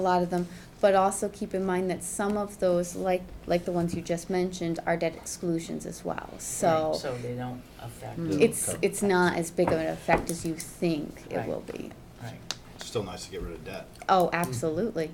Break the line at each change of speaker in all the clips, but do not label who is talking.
a lot of them, but also keep in mind that some of those, like, like the ones you just mentioned, are debt exclusions as well,
Right,
so mm,
So they don't affect,
Mm.
it's,
Okay.
it's not as big of an effect as you think it
Right.
will be.
right,
Still nice to get rid of debt.
Oh,
Mm.
absolutely.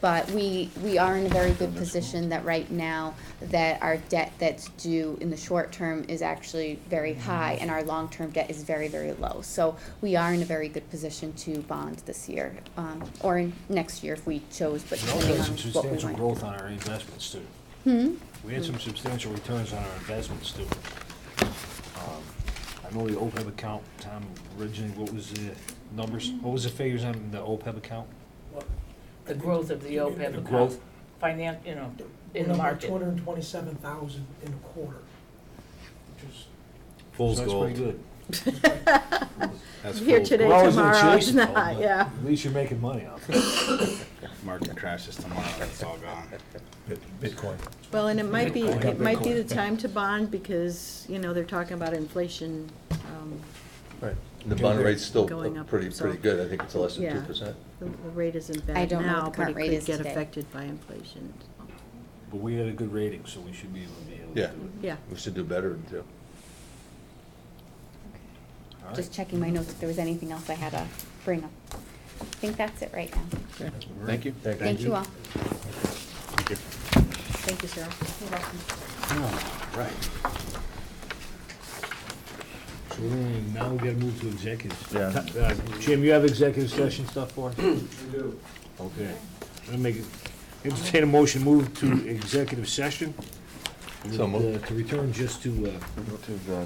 But we, we are in a very good
Goodness, well.
position that right now, that our debt that's due in the short term is actually
Mm.
very high, and our long-term debt is very, very low. So we are in a very good position to bond this year, um, or in next year if we chose, but
We also
depending
had
on
some
what we
substantial growth
want.
on our investments too.
Hmm?
We had some substantial returns on our investments too. Um, I know the OPEB account, Tom, originally, what was the numbers, what was the figures on the OPEB account?
the growth of the OPEB
The
account.
growth.
Finan, you know, in
We're
the
up by
market.
two hundred and twenty-seven thousand in a quarter, which is,
Fool's
So
gold.
That's pretty good.
That's
Here
fool's
today,
We're always gonna
tomorrow,
chase
it's
it, though,
not,
but
yeah.
At least you're making money off it.
gold. Market crashes tomorrow, it's all gone.
Bitcoin.
Well, and it might be,
Bitcoin.
it might be the
Bitcoin.
time to bond because, you know, they're talking about inflation. um,
Right. The bond rate's still
Going up,
pretty,
so-
pretty good. I think it's less than
Yeah.
two percent.
The the rate isn't
I
bad
don't know what
now,
the
but
current
it
rate
could
is
get
today.
affected by inflation. so,
But we had a good rating, so we should be able to be able to do
Yeah.
it.
Yeah.
We should do better than two.
All right.
Just checking my notes if there was anything else I had to bring up. I think that's it right now.
Thank you.
Thank you all.
Thank you.
Thank you, Cheryl. You're welcome.
All Right.
So we're gonna, now we gotta move to executive.
Yeah.
Uh, Jim, you have executive session stuff for us? We do. Okay. I'm gonna make, it- entertain a motion, move to executive session.
So
With, uh,
moved.
To return just to uh,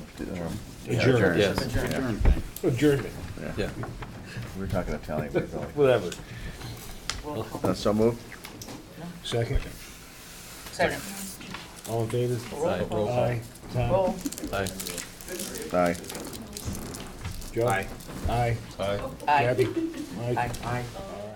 Adjourn.
adjournment.
Yes.
Adjourn thing.
Adjournment.
Yeah.
We're talking Italian, we're going.
Whatever.
Roll call.
Uh, So moved?
Second,
Second,
all in favor?
roll
roll
call.
call.
Aye. Tom?
Roll,
Aye.
Aye.
Joe?
Aye.
Aye.
aye,
Gabby? Mike?
aye.
All